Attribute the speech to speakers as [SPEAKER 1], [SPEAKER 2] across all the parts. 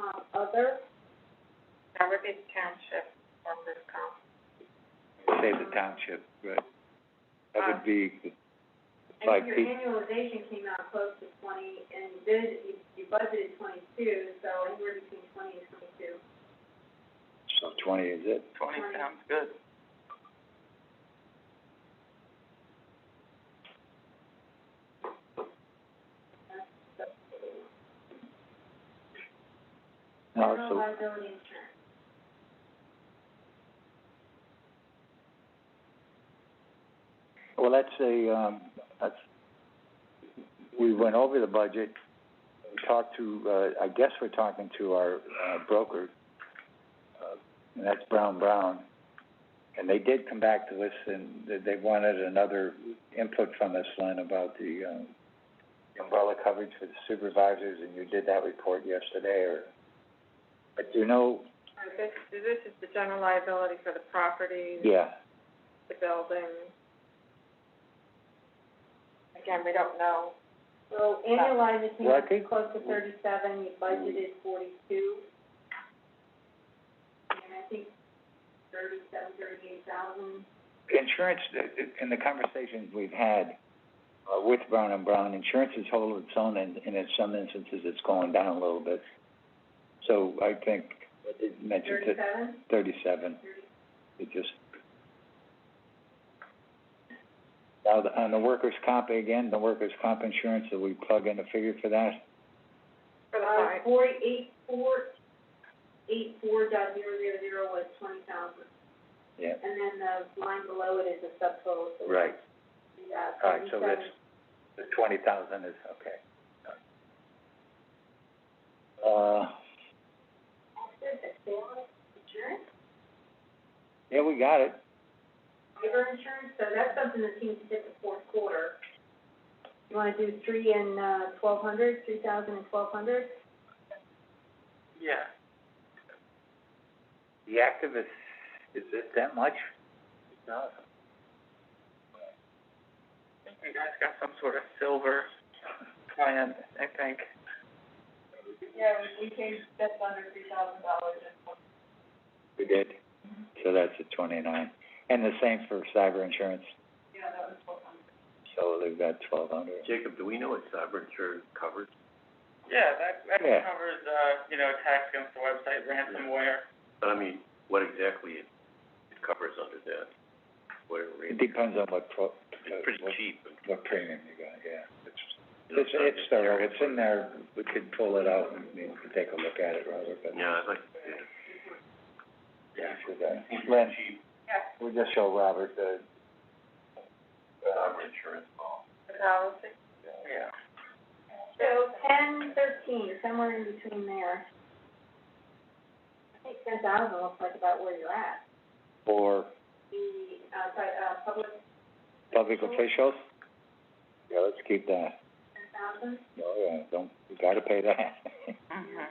[SPEAKER 1] um, other, Riverview Township Workers' Comp.
[SPEAKER 2] Save the township, right? That would be the
[SPEAKER 1] Uh, And
[SPEAKER 2] five
[SPEAKER 1] your
[SPEAKER 2] people.
[SPEAKER 1] annualization came out close to twenty, and you did, you, you budgeted twenty-two, so anywhere between twenty and twenty-two.
[SPEAKER 2] So twenty is it?
[SPEAKER 3] Twenty
[SPEAKER 1] Twenty.
[SPEAKER 3] sounds good.
[SPEAKER 2] No,
[SPEAKER 1] General
[SPEAKER 2] so
[SPEAKER 1] liability insurance.
[SPEAKER 2] Well, that's a, um, that's, we went over the budget, we talked to, uh, I guess we're talking to our, uh, broker, uh, and that's Brown Brown. And they did come back to us and they, they wanted another input from us, Lynn, about the, um, umbrella coverage for the supervisors, and you did that report yesterday, or, but you know,
[SPEAKER 1] All right, this, this is the general liability for the property,
[SPEAKER 2] yeah,
[SPEAKER 1] the building. Again, we don't know. So annualized, it came
[SPEAKER 2] Well, I
[SPEAKER 1] out
[SPEAKER 2] think-
[SPEAKER 1] close to thirty-seven, you budgeted forty-two. And I think thirty-seven, thirty-eight thousand.
[SPEAKER 2] insurance, in the conversations we've had, uh, with Brown and Brown, insurance is holding its own, and, and in some instances, it's going down a little bit. So I think, it mentioned to
[SPEAKER 1] Thirty-seven?
[SPEAKER 2] thirty-seven, it just. Now, the- on the workers' comp again, the workers' comp insurance, do we plug in a figure for that?
[SPEAKER 1] For the five? forty-eight, Uh, four, eight, four dot zero, zero, zero was twenty thousand.
[SPEAKER 2] Yeah.
[SPEAKER 1] And then the line below it is a subtotal, so.
[SPEAKER 2] Right.
[SPEAKER 1] Yeah,
[SPEAKER 2] All right, so that's,
[SPEAKER 1] thirty-seven.
[SPEAKER 2] the twenty thousand is, okay. Uh,
[SPEAKER 1] Taxes, assessment, insurance?
[SPEAKER 2] yeah, we got it.
[SPEAKER 1] labor insurance, so that's something the team did the fourth quarter. You wanna do three and, uh, twelve hundred, three thousand and twelve hundred?
[SPEAKER 3] Yeah.
[SPEAKER 2] The activists, is it that much? No.
[SPEAKER 3] I think you guys got some sort of silver plan, I think.
[SPEAKER 1] Yeah, we came just under three thousand dollars in one.
[SPEAKER 2] We did, so that's a twenty-nine, and the same for cyber insurance,
[SPEAKER 1] Yeah, that was twelve hundred.
[SPEAKER 2] so they've got twelve hundred.
[SPEAKER 4] Jacob, do we know what cyber insurance covers?
[SPEAKER 3] Yeah, that, that
[SPEAKER 2] Yeah.
[SPEAKER 3] covers, uh, you know, attacks against the website, ransomware.
[SPEAKER 4] But I mean, what exactly it, it covers under that? Whatever it
[SPEAKER 2] It
[SPEAKER 4] is,
[SPEAKER 2] depends on what pro,
[SPEAKER 4] it's pretty
[SPEAKER 2] what,
[SPEAKER 4] cheap.
[SPEAKER 2] what premium you got, yeah. It's,
[SPEAKER 4] you know,
[SPEAKER 2] it's, it's there, it's in there, we could pull it out and we could take a look at it, Robert, but.
[SPEAKER 4] Yeah, I'd like, yeah.
[SPEAKER 2] Yeah. Lynn,
[SPEAKER 4] cheap
[SPEAKER 2] we'll just show Robert the,
[SPEAKER 4] cyber insurance law.
[SPEAKER 1] Thousand.
[SPEAKER 3] Yeah.
[SPEAKER 1] So ten, thirteen, somewhere in between there. I think ten thousand looks like about where you're at.
[SPEAKER 2] for
[SPEAKER 1] The, uh, pri- uh, public
[SPEAKER 2] public officials? Yeah, let's keep that,
[SPEAKER 1] ten thousand.
[SPEAKER 2] oh, yeah, don't, you gotta pay that.
[SPEAKER 3] Mm-hmm.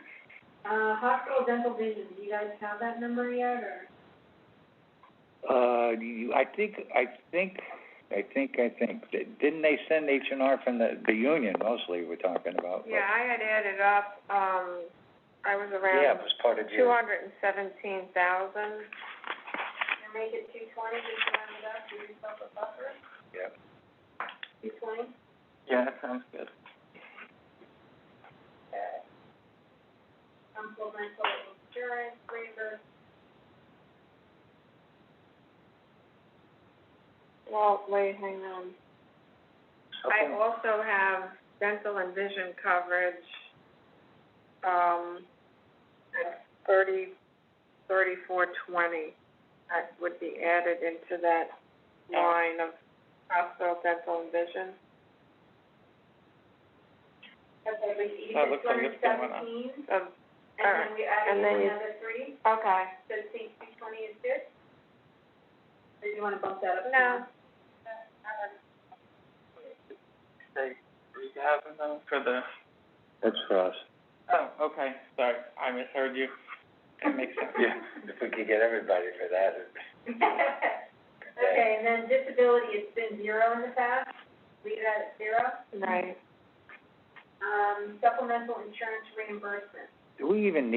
[SPEAKER 1] Uh, hospital dental vision, do you guys have that number yet, or?
[SPEAKER 2] Uh, you, I think, I think, I think, I think, didn't they send H and R from the, the union mostly we're talking about? but-
[SPEAKER 1] Yeah, I had added up, um, I was
[SPEAKER 2] Yeah, it
[SPEAKER 1] around
[SPEAKER 2] was part of
[SPEAKER 1] two
[SPEAKER 2] your,
[SPEAKER 1] hundred and seventeen thousand. And make it two twenty, just round it up, give yourself a buffer.
[SPEAKER 2] yeah,
[SPEAKER 1] Two twenty?
[SPEAKER 3] Yeah, that sounds good.
[SPEAKER 1] Supplemental insurance waiver. Well, wait, hang on. I
[SPEAKER 2] okay,
[SPEAKER 1] also have dental and vision coverage, um, at thirty, thirty-four twenty. That would be added into that line of hospital dental and vision. Okay, but you
[SPEAKER 3] That looks like it's going up. Um,
[SPEAKER 1] and then we added
[SPEAKER 3] And then you-
[SPEAKER 1] another three? Okay. So you think two twenty is good? Or do you wanna bump that up? No.
[SPEAKER 3] say three thousand though for the,
[SPEAKER 2] that's for us.
[SPEAKER 3] oh, okay, sorry, I misheard you. That makes sense.
[SPEAKER 2] If we could get everybody for that, it'd
[SPEAKER 1] Okay, and then disability, it's been zero in the past, leave that at zero. Right. Um, supplemental insurance reimbursement.
[SPEAKER 2] Do we even need